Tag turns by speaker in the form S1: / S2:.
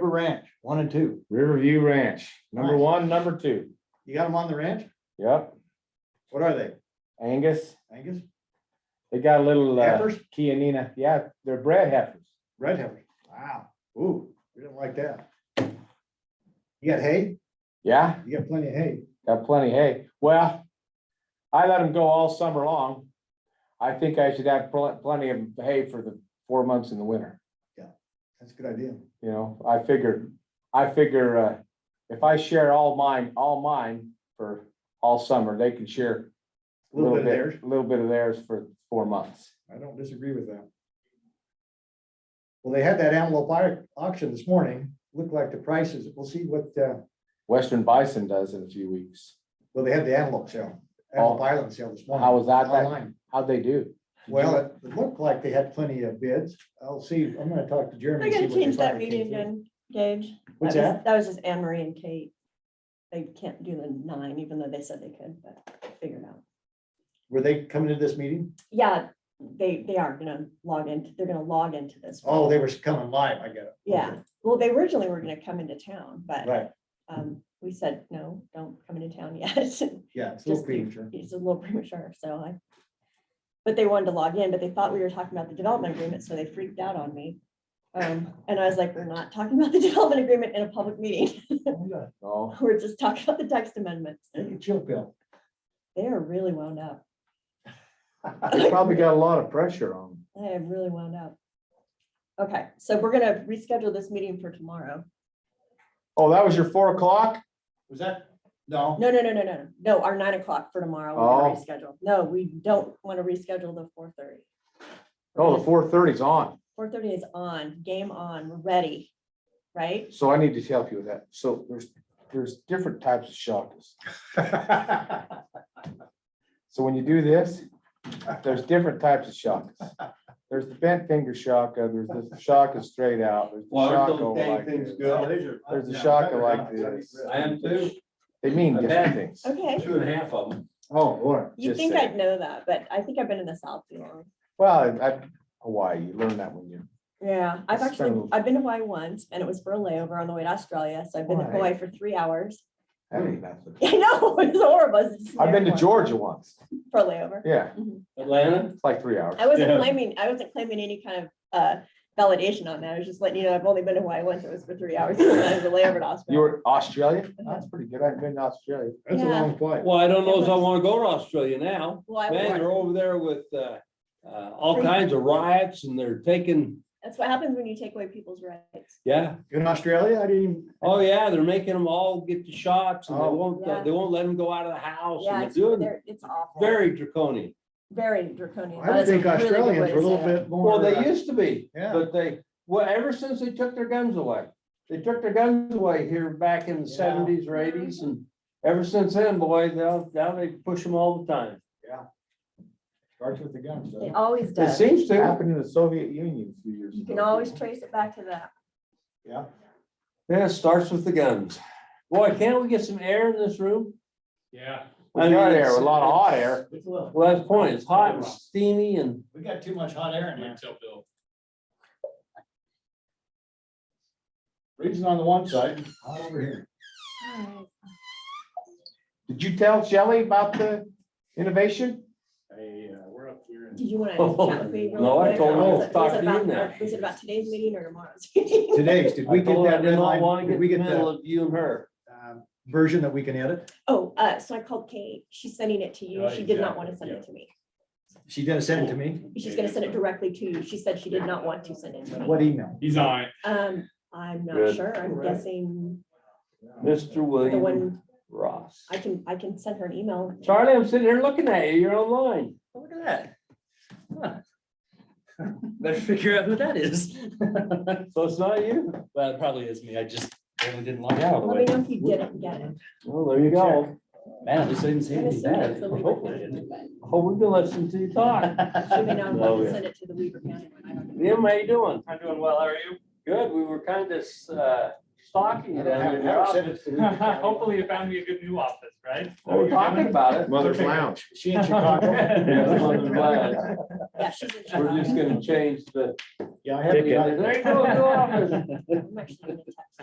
S1: Ranch, one and two.
S2: Riverview Ranch, number
S1: Nice.
S2: one, number two.
S1: You got them on the ranch?
S2: Yep,
S1: What are they?
S2: Angus,
S1: Angus?
S2: they got a little uh,
S1: Heifers?
S2: Kianina, yeah, they're bred heifers.
S1: Red heifers. Wow. Ooh, we didn't like that. You got hay?
S2: Yeah,
S1: You got plenty of hay.
S2: got plenty of hay. Well, I let them go all summer long. I think I should have pl- plenty of hay for the four months in the winter.
S1: That's a good idea.
S2: You know, I figure, I figure, uh, if I share all mine, all mine for all summer, they can share.
S1: A little bit of theirs.
S2: A little bit of theirs for four months.
S1: I don't disagree with that. Well, they had that antelope au- auction this morning. Looked like the prices, we'll see what, uh,
S2: Western bison does in a few weeks.
S1: well, they had the antelope sale, antelope island sale this morning.
S2: Oh. How was that? That-
S1: Online.
S2: How'd they do?
S1: Well, it it looked like they had plenty of bids. I'll see, I'm gonna talk to Jeremy.
S3: I
S1: and see
S3: gotta
S1: what they
S3: change that
S1: finally
S3: meeting
S1: came to.
S3: again, Gage.
S1: What's
S3: was-
S1: that?
S3: That was just Anne Marie and Kate. They can't do the nine, even though they said they could, but figure it out.
S1: Were they coming to this meeting?
S3: Yeah, they, they are gonna log into, they're gonna log into this. one.
S1: Oh, they were coming live, I get it.
S3: Yeah, well, they originally were gonna come into town,
S1: Okay,
S3: but
S1: Right,
S3: um, we said, no, don't come into town yet. It's
S1: yeah, it's a little
S3: Just
S1: premature.
S3: It's a little premature, so I. But they wanted to log in, but they thought we were talking about the development agreement, so they freaked out on me. Um, and I was like, we're not talking about the development agreement in a public meeting.
S1: Oh, yeah.
S2: Oh,
S3: We're just talking about the text amendments.
S1: Take a chill pill.
S3: They are really wound up.
S2: they probably got a lot of pressure on them.
S3: They have really wound up. Okay, so we're gonna reschedule this meeting for tomorrow.
S2: Oh, that was your four o'clock?
S1: Was that? No,
S3: No, no, no, no, no, no, our nine o'clock for tomorrow. We're
S2: Oh.
S3: gonna reschedule. No, we don't want to reschedule the four thirty.
S2: Oh, the four thirty's on.
S3: Four thirty is on, game on, we're ready, right?
S2: So I need to help you with that. So there's, there's different types of chakras.
S4: Oh
S2: So when you do this, there's different types of chakras. There's the bent finger shaka, there's the shaka straight out. there's the
S5: Well, there's
S2: shaka
S5: those
S2: like
S5: dang things
S2: this.
S5: good.
S2: There's a shaka like this.
S5: I am too,
S2: They mean
S5: A
S2: different
S5: band.
S2: things.
S3: Okay,
S5: two and a half of them.
S2: Oh, Lord.
S3: you
S2: just
S3: think
S2: saying.
S3: I'd know that, but I think I've been in the South too long.
S2: Well, I, I- Hawaii, you learn that when you're,
S3: Yeah, I've
S2: That's
S3: actually,
S2: terrible.
S3: I've been to Hawaii once and it was for a layover on the way to Australia, so I've been to
S2: Why?
S3: Hawaii for three hours.
S2: that ain't nothing.
S3: I know, it's horrible. it's just an
S2: I've been to
S3: airport
S2: Georgia once.
S3: For a layover.
S2: Yeah,
S5: Atlanta,
S2: it's like three hours.
S3: I wasn't
S5: Yeah.
S3: claiming, I wasn't claiming any kind of uh validation on that. I was just letting you know, I've only been to Hawaii once. It was for three hours. It was a layover to
S2: You
S3: Australia.
S2: were Australia? That's pretty good. I've been to Australia.
S1: That's a
S3: Yeah.
S1: long flight.
S5: well, I don't know if I wanna go to Australia now.
S3: Well, I
S5: Man,
S3: was-
S5: they're over there with, uh, uh, all kinds of riots and they're taking,
S3: That's what happens when you take away people's rights.
S5: yeah.
S1: In Australia, I didn't. even-
S5: Oh, yeah, they're making them all get the shots and they
S2: Oh.
S5: won't, uh,
S3: Yeah.
S5: they won't let them go out of the house
S3: Yeah,
S5: and
S3: it's,
S5: they're Oh, doing
S3: they're- it's awful,
S5: very draconian.
S3: very draconian.
S1: I would
S3: That's a
S1: think
S3: really good
S1: Australians
S3: way to
S1: were a
S3: say
S1: little
S3: it.
S1: bit more.
S5: Well, they
S1: uh,
S5: used to be,
S1: Yeah,
S5: but they, well, ever since they took their guns away. They took their guns away here back in the
S1: Yeah.
S5: seventies or eighties and ever since then, boy, now, now they push them all the time.
S1: starts with the guns. doesn't
S3: It
S1: it?
S3: always
S5: It
S3: does.
S5: seems
S2: It
S5: to.
S2: happened in the Soviet Union a few years ago.
S3: You can always trace it back to that.
S1: Yeah.
S5: Yeah, it starts with the guns. Boy, can't we get some air in this room?
S6: Yeah.
S2: We got air, a lot of hot air.
S5: Well, that's the point. It's hot and steamy and
S1: We got too much hot air in here.
S6: Wait till Bill.
S1: Freezing on the one side, hot over here.
S2: Did you tell Shelley about the innovation?
S6: Hey, uh, we're up here in
S3: Did you want to chat with me? real
S5: Oh, No, I
S3: quick?
S5: told
S1: her
S3: Was
S5: to
S3: it-
S5: talk
S3: was it
S5: to you
S3: about-
S5: now.
S3: Was it about today's meeting or tomorrow's? meeting?
S1: Today's, did
S5: I
S1: we get
S5: told her I
S1: that
S5: did
S1: red
S5: not want
S1: line?
S5: to
S1: Did
S5: get
S1: we
S5: in
S1: get
S5: the middle
S1: the
S5: of you and her.
S1: uh, version that we can edit?
S3: Oh, uh, so I called Kate. She's sending it to you. She did not want to send it to me.
S1: She didn't send it to me.
S3: She's gonna send it directly to you. She said she did not want to send it to me.
S1: What email?
S6: He's on it.
S3: Um, I'm not
S5: Good.
S3: sure. I'm guessing
S5: Mr.
S3: the
S5: William
S3: one,
S5: Ross.
S3: I can, I can send her an email.
S5: Charlie, I'm sitting here looking at you. You're online.
S4: Look at that. Huh. Better figure out who that is.
S5: So it's not you?
S4: Well, it probably is me. I just barely didn't log out. of the
S3: Let
S4: way.
S3: me know if you didn't get it.
S5: Well, there you go.
S4: Man, at least I didn't see
S3: I'm
S4: anything
S3: assuming
S4: bad.
S3: it's the Weaver
S4: Hopefully I
S3: County
S4: didn't.
S3: one,
S5: Oh, we've been listening to you talk.
S3: but She may not want
S5: Oh,
S3: to
S5: yeah.
S3: send it to the Weaver County one. I don't know.
S5: Liam, how you doing?
S4: I'm doing well. How are you?
S5: Good. We were kind of uh, stalking you down there. in your office.
S6: Hopefully you found me a good new office, right?
S5: We're talking about it.
S2: Mother's Lounge.
S1: She in Chicago.
S5: We're
S3: Yeah, she's in
S5: just
S3: Chicago.
S5: gonna change the.
S1: Yeah, I
S5: There
S1: haven't
S5: you
S1: got
S5: go, new office.
S3: I'm actually gonna text